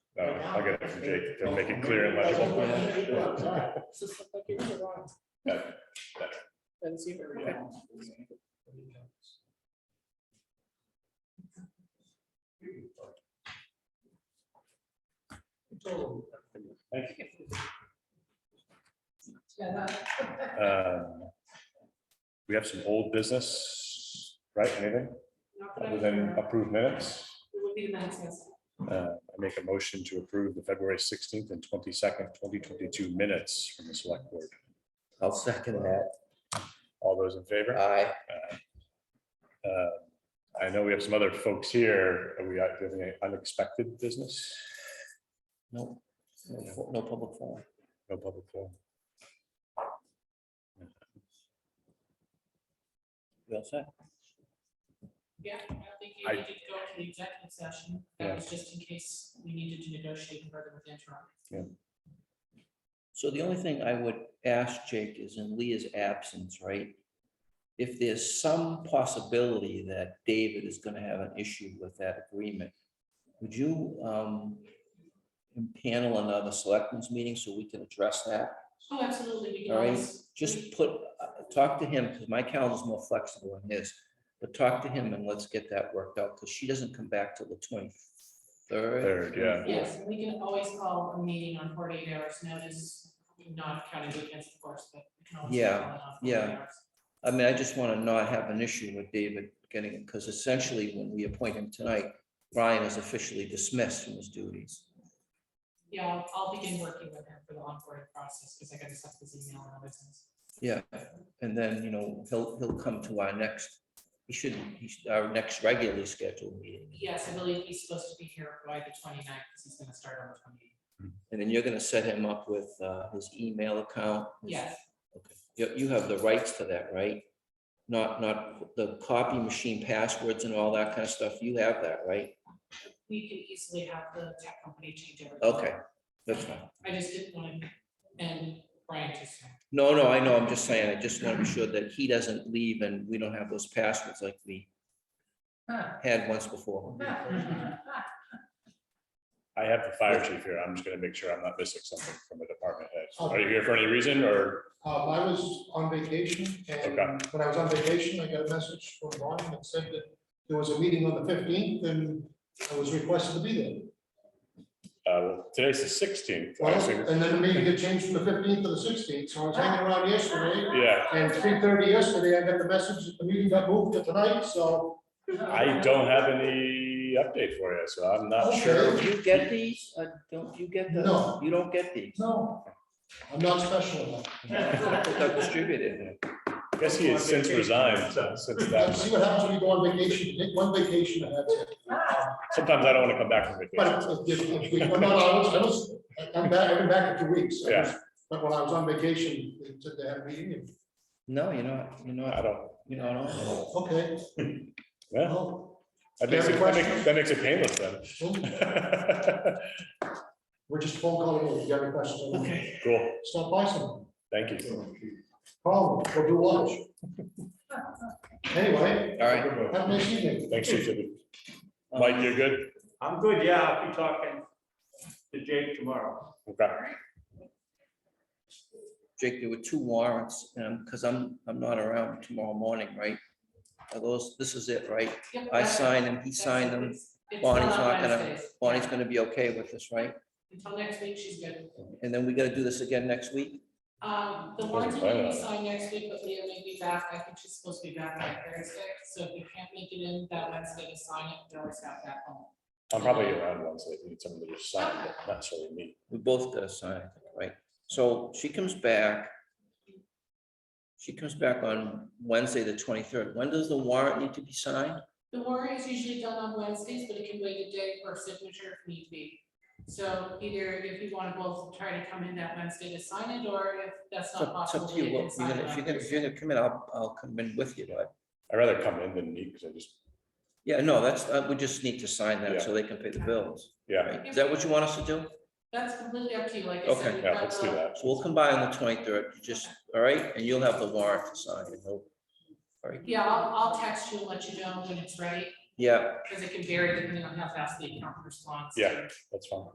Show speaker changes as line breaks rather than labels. Uh, I'll get it from Jake to make it clear and legible. That- that- um, We have some old business, right? Anything other than approved minutes? Uh, I make a motion to approve the February sixteenth and twenty-second, twenty twenty-two minutes from the select board.
I'll second that.
All those in favor?
Aye.
Uh, I know we have some other folks here. Are we uh, do we have any unexpected business?
No, no fo- no public forum.
No public forum.
You all set?
Yeah, I think you
I-
need to go to the executive session.
Yeah.
That was just in case we needed to negotiate further with Enron.
So the only thing I would ask Jake is in Leah's absence, right? If there's some possibility that David is gonna have an issue with that agreement, would you um panel another selectmen's meeting so we can address that?
Oh, absolutely. We can
All right.
always-
Just put, uh, talk to him, because my calendar's more flexible than his, but talk to him and let's get that worked out, because she doesn't come back till the twenty-third.
Third, yeah.
Yes, and we can always call a meeting on forty-eight hours notice, not counting weekends, of course, but. we can always
Yeah,
call it on
yeah.
48 hours.
I mean, I just want to not have an issue with David getting, because essentially when we appoint him tonight, Brian is officially dismissed from his duties.
Yeah, I'll- I'll begin working with him for the onboarding process, because I gotta set this email and other things.
Yeah, and then, you know, he'll, he'll come to our next, he should, he should- our next regularly scheduled meeting.
Yes, I believe he's supposed to be here by the 29th, because he's gonna start on the twenty-eighth.
And then you're going to set him up with uh, his email account. his-
Yes,
You, you have the rights to that, right? Not, not the copy machine passwords and all that kind of stuff. You have that, right?
we can easily have the tech company change everything.
Okay, that's fine.
I just didn't want to, and Brian just.
No, no, I know. I'm just saying, I just want to be sure that he doesn't leave and we don't have those passwords like we had once before.
I have the fire chief here. I'm just gonna make sure I'm not missing something from the department head. Are you here for any reason or?
Um, I was on vacation and
Okay.
when I was on vacation, I got a message from Ron that said that there was a meeting on the fifteenth and I was requested to be there.
Uh, well, today's the sixteenth.
Well, And then the meeting had changed from the fifteenth to the sixteenth, so I was hanging around yesterday.
Yeah,
And three thirty yesterday, I got the message that the meeting got moved to tonight, so.
I don't have any update for you, so I'm not sure.
Do you get these? Uh, Don't you get the?
No.
You don't get these?
No, I'm not special enough.
They're distributed.
Guess he has since resigned, so- since
Now,
that.
See what happens when you go on vacation, You take one vacation and that's it.
Sometimes I don't want to come back from vacation.
But if, if we, well, no, no, I was, I was, I'm back, I've been back in two weeks. I was-
Yeah.
But when I was on vacation, they said they had a meeting, and,
No, you're not, you're
I
not,
don't,
you're not on. it.
okay,
yeah,
well,
that makes it, that makes- that makes it painless then.
we're just phone calling, you. if you have any questions.
Okay.
Cool,
Stop by some,
thank you.
call me, or do lunch. Anyway,
All right.
have a nice evening.
Thanks, Chief.
Um,
Mike, you're good?
I'm good, yeah, I'll be talking to Jake tomorrow.
Okay.
Jake, there were two warrants, and, because I'm, I'm not around tomorrow morning, right? Are those, this is it, right?
Yep,
I
that's-
signed them, he
that's
signed
it.
them.
It's- it's
Bonnie's
not
not gonna,
Wednesdays.
Bonnie's gonna be okay with this, right?
Until next week, she's good.
And then we gotta do this again next week?
Um, the
Doesn't
warrants are
plan
gonna
on
be
it.
signed next week, but Leah may be back, I think she's supposed to be back by Thursday, so if you can't make it in that Wednesday to sign it, you always have that home.
I'm probably around once, I need someone to just sign, but not necessarily me.
We both gotta sign, I think, right? So she comes back. She comes back on Wednesday, the twenty-third. When does the warrant need to be signed?
The warrant is usually done on Wednesdays, but it can wait a day for signature if need be. So either if you wanna both try to come in that Wednesday to sign it, or if that's
It's
not
up- it's
possible.
up to you.
Leah can
Well, you're
sign
gonna-
it
If
on
you're gonna, if
Thursday.
you're gonna come in, I'll, I'll come in with you, but,
I'd rather come in than meet, because I just,
yeah, no, that's, uh, we just need to sign
Yeah.
that so they can pay the bills,
yeah,
right? Is that what you want us to do?
That's completely up to you, like I
Okay,
said. we've
yeah,
got
let's do
the-
that.
So we'll come by on the twenty-third, just, all right? And you'll have the warrant to sign. and we'll- All right,
Yeah, I'll, I'll text you and let you know when it's ready,
yeah,
because it can vary depending on how fast the account responds. to
Yeah. That's fine.